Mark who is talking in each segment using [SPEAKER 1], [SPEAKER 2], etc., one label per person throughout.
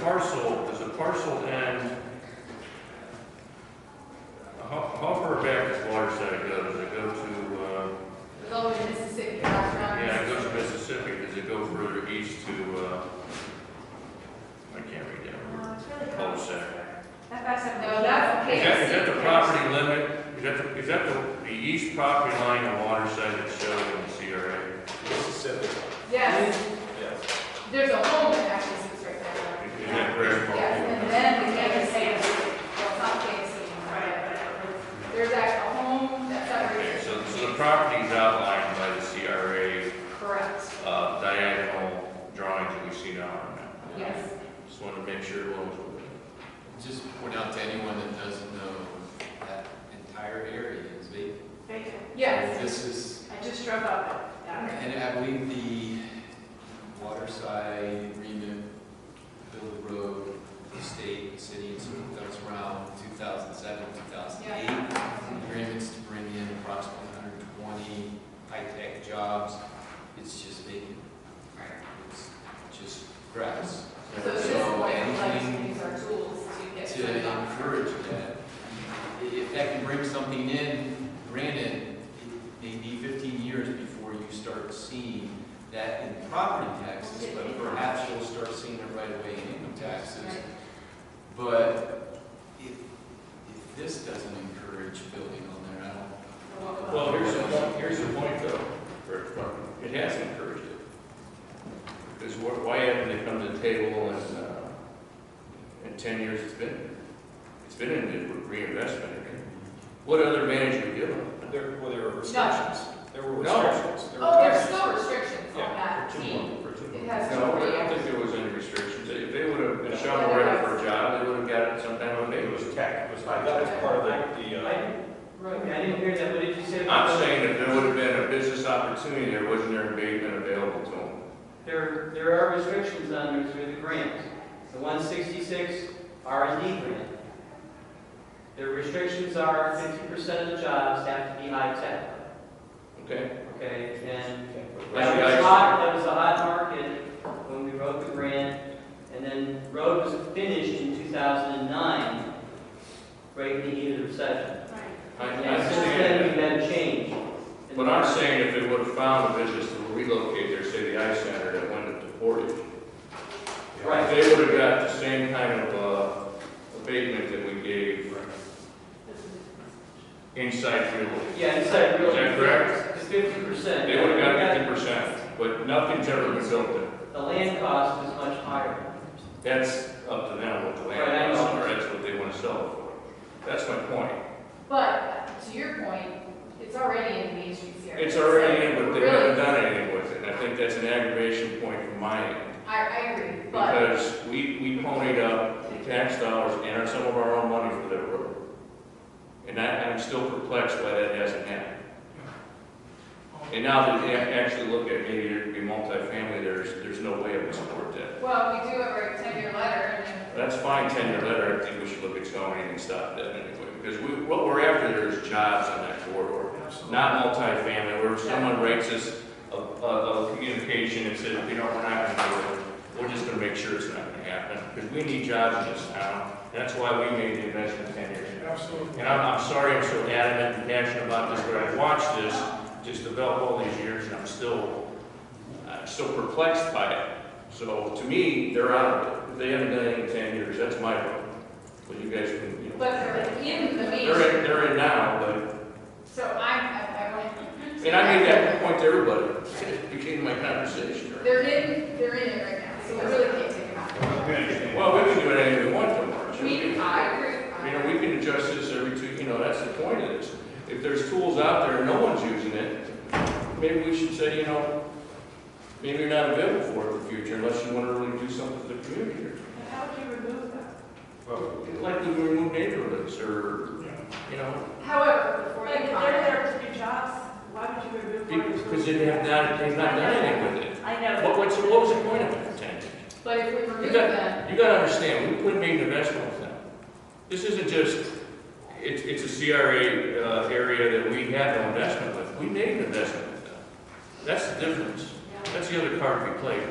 [SPEAKER 1] parcel, does the parcel end? How, how far back does Waterside go? Does it go to, uh,
[SPEAKER 2] Go to Mississippi, that's not.
[SPEAKER 1] yeah, it goes to Mississippi, does it go further east to, uh, I can't read that. word.
[SPEAKER 3] No, it's really
[SPEAKER 1] Cul-de-sac.
[SPEAKER 3] cul-de-sac. That that's a-
[SPEAKER 2] No, that's okay.
[SPEAKER 1] Is that, is that the property limit, is that, the- is that the, the east property line of Waterside that's shown in the CRA?
[SPEAKER 4] Mississippi.
[SPEAKER 2] Yes,
[SPEAKER 4] Yes.
[SPEAKER 2] there's a home that actually sits right there.
[SPEAKER 1] Is that correct?
[SPEAKER 2] Yes, and then the Kansas City, well, not Kansas City, right? There's actually a home that
[SPEAKER 1] Okay,
[SPEAKER 2] separates.
[SPEAKER 1] so, so the property is outlined by the CRA
[SPEAKER 2] Correct,
[SPEAKER 1] uh, diagonal drawings that we see now on that.
[SPEAKER 2] yes.
[SPEAKER 1] Just wanted to make sure what was.
[SPEAKER 5] Just point out to anyone that doesn't know, that entire area is vacant.
[SPEAKER 3] Thank you.
[SPEAKER 2] Yes,
[SPEAKER 5] This is,
[SPEAKER 3] I just drove up it. Yeah.
[SPEAKER 5] and I believe the waterside agreement, Bill Road, the state, the city, and so forth, that was around 2007, 2008. Agreements to bring in approximately 120 high-tech jobs. It's just vacant. It's just grass.
[SPEAKER 2] so it's just like, like, these are tools to get.
[SPEAKER 5] to encourage that. I- If that can bring something in, granted, it may be fifteen years before you start seeing that in property taxes, but perhaps you'll start seeing it right away in income taxes.
[SPEAKER 2] Right.
[SPEAKER 5] But if, if this doesn't encourage building on there, I don't.
[SPEAKER 1] Well, here's the point, here's the point though, for- for- it has encouraged it. Because wh- why haven't they come to the table and, uh, in ten years it's been, it's been in the reinvestment again. What other advantage would give them?
[SPEAKER 4] There, well, there were restrictions. There were
[SPEAKER 1] No.
[SPEAKER 4] restrictions. There were
[SPEAKER 2] Oh, there's
[SPEAKER 4] restrictions.
[SPEAKER 2] still restrictions on
[SPEAKER 4] Yeah,
[SPEAKER 2] that
[SPEAKER 4] for two
[SPEAKER 2] team.
[SPEAKER 4] months, for two
[SPEAKER 2] It
[SPEAKER 4] months.
[SPEAKER 2] has
[SPEAKER 1] No,
[SPEAKER 2] to
[SPEAKER 1] I don't
[SPEAKER 2] be,
[SPEAKER 1] think there was any restrictions. If they would have been shovel ready for a job, they would have got it sometime when they was
[SPEAKER 4] Tech was, that was part of the, the, uh,
[SPEAKER 6] I, Roy, I didn't hear that, what did you say?
[SPEAKER 1] I'm saying that there would have been a business opportunity, there wasn't there an abatement available to them.
[SPEAKER 6] There, there are restrictions on there through the grants. The one sixty-six R and D grant. The restrictions are fifty percent of the jobs have to be high-tech,
[SPEAKER 1] Okay?
[SPEAKER 6] okay? And that was
[SPEAKER 1] Well,
[SPEAKER 6] hot, that was a hot market when we wrote the grant. And then road was finished in two thousand and nine, right in the heat of the recession.
[SPEAKER 1] I, I
[SPEAKER 6] And since then,
[SPEAKER 1] understand
[SPEAKER 6] we've
[SPEAKER 1] that.
[SPEAKER 6] had a change. in
[SPEAKER 1] But
[SPEAKER 6] the
[SPEAKER 1] I'm
[SPEAKER 6] market.
[SPEAKER 1] saying if they would have found a business to relocate their city ice center that went to Portage,
[SPEAKER 6] Right.
[SPEAKER 1] they would have got the same kind of, uh, abatement that we gave inside Freehold.
[SPEAKER 6] Yeah, inside real.
[SPEAKER 1] Is that correct?
[SPEAKER 6] It's fifty percent.
[SPEAKER 1] They would have got fifty percent, but nothing's ever been built there.
[SPEAKER 6] The land cost is much higher.
[SPEAKER 1] That's up to them what the
[SPEAKER 6] Right, I
[SPEAKER 1] land
[SPEAKER 6] know.
[SPEAKER 1] is, or that's what they want to sell it for. That's my point.
[SPEAKER 2] but to your point, it's already in the Main Street area.
[SPEAKER 1] It's already in, but they haven't
[SPEAKER 2] Really,
[SPEAKER 1] done anything with it, and I think that's an aggravation point from my end.
[SPEAKER 2] I, I agree, but,
[SPEAKER 1] Because we, we ponied up the tax dollars and our- some of our own money for that road. And I, I'm still perplexed why that hasn't happened. And now that they ac- actually look at maybe there could be multifamily, there's, there's no way I would support that.
[SPEAKER 2] well, we do have our ten-year letter, and
[SPEAKER 1] That's fine, ten-year letter, I think we should look at zoning and stop that anyway, because we, what we're after there is jobs on that corridor. not multifamily, where someone writes us a, a, a communication and says, you know, we're not gonna do it. We're just gonna make sure it's not gonna happen, because we need jobs in this town, and that's why we made the investment ten years ago. Absolutely. And I'm, I'm sorry I'm so adamant and passionate about this, but I've watched this just develop all these years, and I'm still, I'm still perplexed by it. So to me, they're out of it, they haven't done it in ten years, that's my vote, but you guys can, you know.
[SPEAKER 2] but they're in the Main
[SPEAKER 1] They're in,
[SPEAKER 2] Street.
[SPEAKER 1] they're in now, but
[SPEAKER 2] So I'm, I, I want.
[SPEAKER 1] and I made that point to everybody, it became my conversation.
[SPEAKER 2] They're in, they're in it right now, so we really can't take them out.
[SPEAKER 1] Well, we can do anything we want to March.
[SPEAKER 2] We, I agree.
[SPEAKER 1] You know, we can adjust this every two, you know, that's the point of this. If there's tools out there and no one's using it, maybe we should say, you know, maybe you're not available for it in the future unless you want to really do something for the community.
[SPEAKER 3] And How would you remove that?
[SPEAKER 1] Like we remove neighborhoods or, you know,
[SPEAKER 2] However, before
[SPEAKER 3] Like,
[SPEAKER 2] they
[SPEAKER 3] if
[SPEAKER 2] comment.
[SPEAKER 3] they're there to be jobs, why would you remove? one?
[SPEAKER 1] because they have not, they've not done anything with it.
[SPEAKER 3] I know.
[SPEAKER 1] What, what's, what was the point of it, Ted?
[SPEAKER 2] But if we
[SPEAKER 1] You
[SPEAKER 2] remove them,
[SPEAKER 1] got, you gotta understand, we put made an investment with them. This isn't just, it's, it's a CRA, uh, area that we had no investment with, we made an investment with them. That's the difference, that's the other card we played,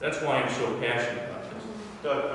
[SPEAKER 1] that's why I'm so passionate about this.
[SPEAKER 4] Doug,